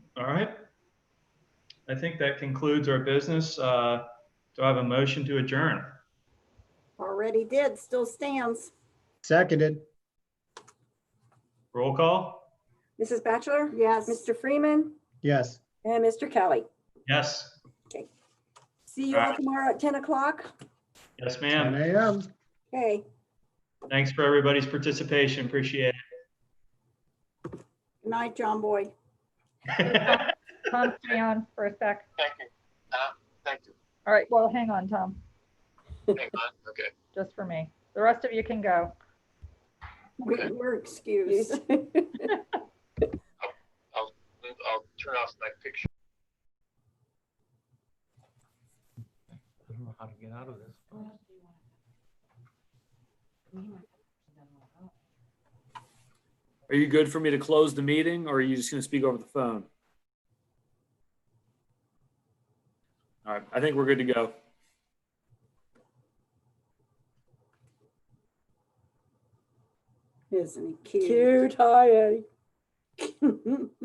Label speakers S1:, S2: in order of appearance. S1: All right. I think that concludes our business. Uh, Do I have a motion to adjourn?
S2: Already did, still stands.
S3: Seconded.
S1: Roll call?
S4: Mrs. Bachelor,
S2: Yes.
S4: Mr. Freeman,
S3: Yes.
S4: and Mr. Kelly.
S1: Yes.
S4: See you all
S1: Alright.
S4: tomorrow at 10 o'clock.
S1: Yes,
S3: 10
S1: ma'am.
S3: a.m.
S4: Okay,
S1: Thanks for everybody's participation. Appreciate
S2: Good night, John Boyd.
S1: it.
S5: Tom, stay on for a sec.
S6: Thank you. Uh, thank you.
S5: All right, well, hang on, Tom,
S6: Hang on. Okay.
S5: just for me. The rest of you can go.
S2: We-
S6: Okay.
S2: We're excused.
S6: Move- I'll turn off my picture.
S7: I don't know how to get out of this.
S8: Are you good for me to close the meeting or are you just going to speak over the phone? All right, I think we're good to go.
S2: Isn't he
S4: cute, hi, Eddie.
S2: cute?